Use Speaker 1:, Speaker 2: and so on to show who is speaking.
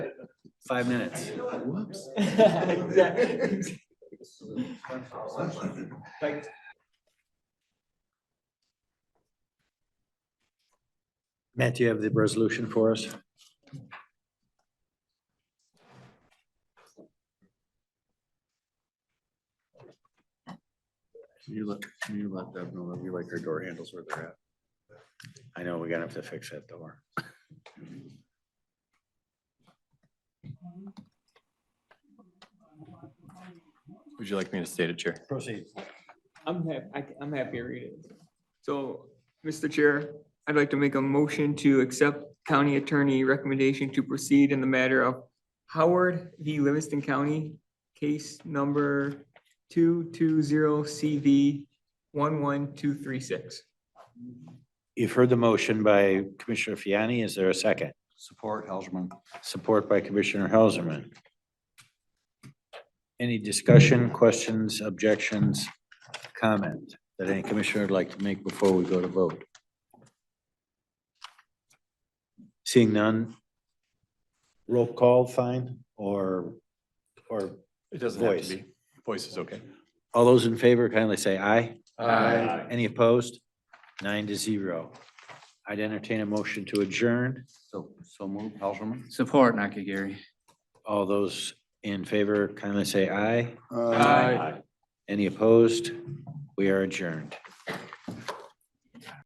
Speaker 1: five minutes.
Speaker 2: Whoops.
Speaker 3: Exactly. Like,
Speaker 1: Matt, do you have the resolution for us?
Speaker 2: You look, you let Deb know that you like her door handles where they're at.
Speaker 1: I know we're gonna have to fix that door.
Speaker 4: Would you like me to state it, Chair?
Speaker 1: Proceed.
Speaker 3: I'm happy, I'm happy to read it. So, Mr. Chair, I'd like to make a motion to accept county attorney recommendation to proceed in the matter of Howard v. Livingston County, case number two-two-zero CV one-one-two-three-six.
Speaker 1: You've heard the motion by Commissioner Fiani. Is there a second?
Speaker 2: Support Helserman.
Speaker 1: Support by Commissioner Helserman. Any discussion, questions, objections, comment that any commissioner would like to make before we go to vote? Seeing none? Roll call, fine, or, or,
Speaker 4: It doesn't have
Speaker 1: Voice.
Speaker 4: to be. Voice is okay.
Speaker 1: all those in favor kindly say aye. Any opposed? Nine to zero. I'd entertain a motion to adjourn.
Speaker 2: So, so move Helserman.
Speaker 5: Support Nakagiri.
Speaker 1: All those in favor kindly say aye.
Speaker 3: Aye.
Speaker 1: Any opposed? We are adjourned.